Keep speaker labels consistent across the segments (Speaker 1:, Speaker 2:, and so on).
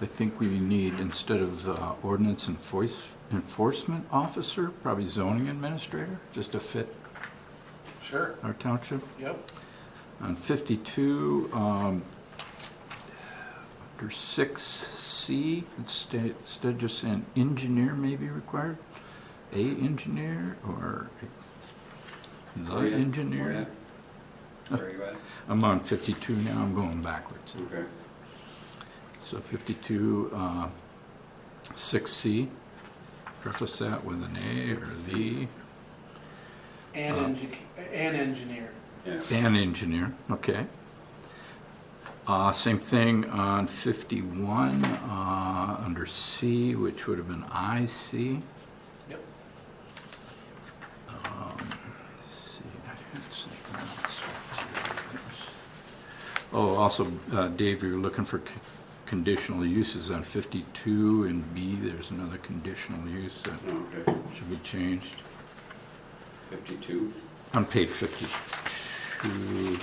Speaker 1: I think we need, instead of uh, ordinance enforce- enforcement officer, probably zoning administrator, just to fit
Speaker 2: Sure,
Speaker 1: our township.
Speaker 2: yep.
Speaker 1: On 52, um, under 6C, instead instead of just saying engineer may be required, a engineer or
Speaker 2: Oh,
Speaker 1: the
Speaker 3: Where you at? Where
Speaker 1: engineer.
Speaker 3: you at? Where you at?
Speaker 1: I'm on 52 now, I'm going backwards.
Speaker 3: Okay.
Speaker 1: So 52, uh, 6C, preface that with an A or the,
Speaker 2: And
Speaker 1: Uh,
Speaker 2: engi- and engineer.
Speaker 3: Yeah.
Speaker 1: an engineer, okay. Uh, Same thing on 51, uh, under C, which would have been IC.
Speaker 2: Yep.
Speaker 1: Let's see, I had something else. Oh, also, uh, Dave, you're looking for c- conditional uses on 52 and B, there's another conditional use that
Speaker 3: Okay.
Speaker 1: should be changed.
Speaker 3: Fifty-two.
Speaker 1: On page 52,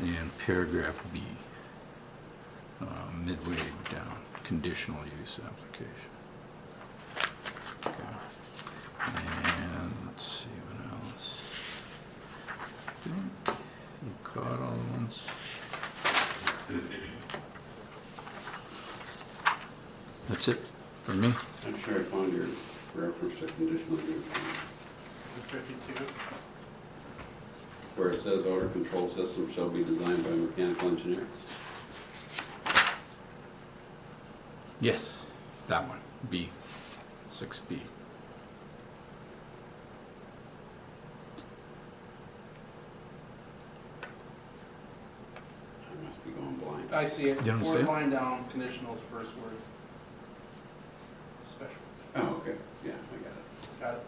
Speaker 1: and paragraph B, uh, midway down, conditional use application. Okay. And let's see what else. I think you caught all the ones. That's it for me.
Speaker 3: I'm sure I found your reference to conditional use.
Speaker 2: Fifty-two.
Speaker 3: Where it says odor control system shall be designed by mechanical engineer.
Speaker 1: Yes. That one, B, 6B.
Speaker 3: I must be going blind.
Speaker 2: I see it.
Speaker 1: You don't see it?
Speaker 2: Fourth line down, conditional is the first word. Special,
Speaker 3: Oh, okay. Yeah, I got it.
Speaker 2: got it.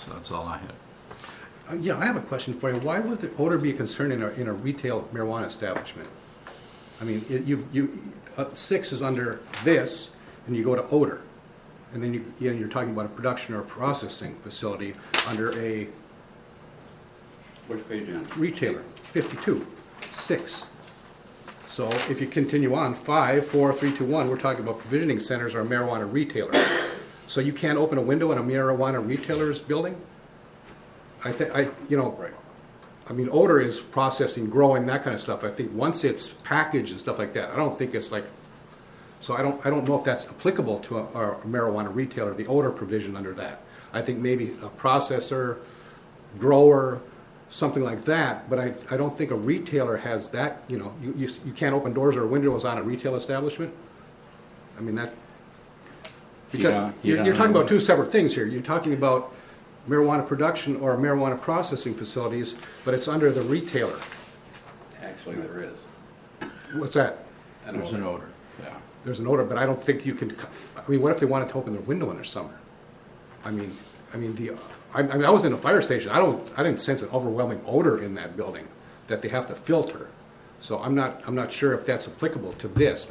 Speaker 1: So that's all I had.
Speaker 4: Uh, Yeah, I have a question for you. Why would the odor be a concern in a, in a retail marijuana establishment? I mean, it- you've, you, uh, six is under this, and you go to odor. And then you, you know, you're talking about a production or processing facility under a
Speaker 3: Which page on?
Speaker 4: retailer, fifty-two, six. So if you continue on, five, four, three, two, one, we're talking about provisioning centers or marijuana retailers. So you can't open a window in a marijuana retailer's building? I think, I, you know, I mean, odor is processing, growing, that kind of stuff. I think once it's packaged and stuff like that, I don't think it's like, so I don't, I don't know if that's applicable to a a marijuana retailer, the odor provision under that. I think maybe a processor, grower, something like that, but I, I don't think a retailer has that, you know, you, you, you can't open doors or windows on a retail establishment? I mean, that,
Speaker 1: You
Speaker 4: because
Speaker 1: don't- you
Speaker 4: you're, you're talking
Speaker 1: don't-
Speaker 4: about two separate things here. You're talking about marijuana production or marijuana processing facilities, but it's under the retailer.
Speaker 3: Actually, there is.
Speaker 4: What's that?
Speaker 3: An
Speaker 1: There's an
Speaker 3: odor.
Speaker 1: odor, yeah.
Speaker 4: There's an odor, but I don't think you can, I mean, what if they wanted to open their window in the summer? I mean, I mean, the, I, I mean, I was in a fire station, I don't, I didn't sense an overwhelming odor in that building that they have to filter. So I'm not, I'm not sure if that's applicable to this.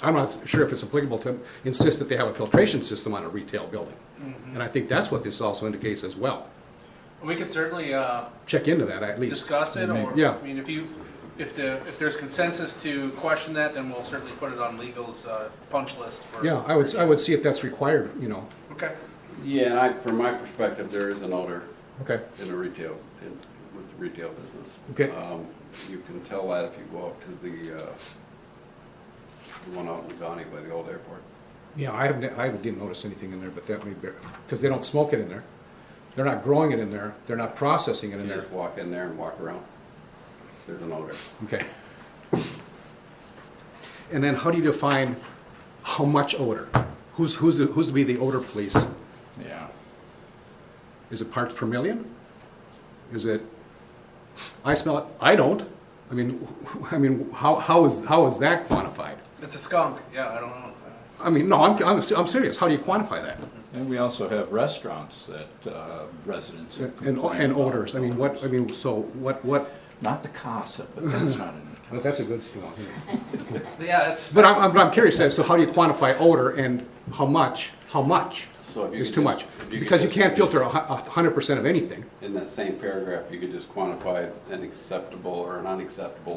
Speaker 4: I'm not sure if it's applicable to insist that they have a filtration system on a retail building.
Speaker 2: Mm-hmm.
Speaker 4: And I think that's what this also indicates as well.
Speaker 2: We could certainly, uh,
Speaker 4: Check into that at least.
Speaker 2: discuss it, or,
Speaker 4: Yeah.
Speaker 2: I mean, if you, if the, if there's consensus to question that, then we'll certainly put it on legal's, uh, punch list for.
Speaker 4: Yeah, I would, I would see if that's required, you know,
Speaker 2: Okay,
Speaker 3: Yeah, and I, from my perspective, there is an odor
Speaker 4: okay.
Speaker 3: in a retail, in, with the retail business.
Speaker 4: Okay.
Speaker 3: Um, You can tell that if you go up to the, uh, the one out in Donny by the old airport.
Speaker 4: Yeah, I haven't, I haven't, didn't notice anything in there, but that may be, because they don't smoke it in there. They're not growing it in there, they're not processing it in
Speaker 3: You
Speaker 4: there.
Speaker 3: just walk in there and walk around. There's an odor.
Speaker 4: Okay. And then how do you define how much odor? Who's, who's, the- who's to be the odor police?
Speaker 1: Yeah.
Speaker 4: Is it parts per million? Is it, I smell it, I don't. I mean, I mean, how, how is, how is that quantified?
Speaker 2: it's a skunk, yeah, I don't know.
Speaker 4: I mean, no, I'm, I'm, I'm serious, how do you quantify that?
Speaker 1: And we also have restaurants that uh, residents. have
Speaker 4: And,
Speaker 1: complained
Speaker 4: and
Speaker 1: about.
Speaker 4: odors, I mean, what, I mean, so what, what?
Speaker 1: Not the CASA, but that's not an.
Speaker 4: But that's a good, you know.
Speaker 2: Yeah, that's,
Speaker 4: But I'm, I'm, but I'm curious as to how do you quantify odor and how much, how much
Speaker 3: So if you
Speaker 4: is
Speaker 3: could
Speaker 4: too
Speaker 3: just-
Speaker 4: much?
Speaker 3: if you could
Speaker 4: Because you
Speaker 3: just-
Speaker 4: can't filter a hu- a hundred percent of anything.
Speaker 3: In that same paragraph, you could just quantify an acceptable or an unacceptable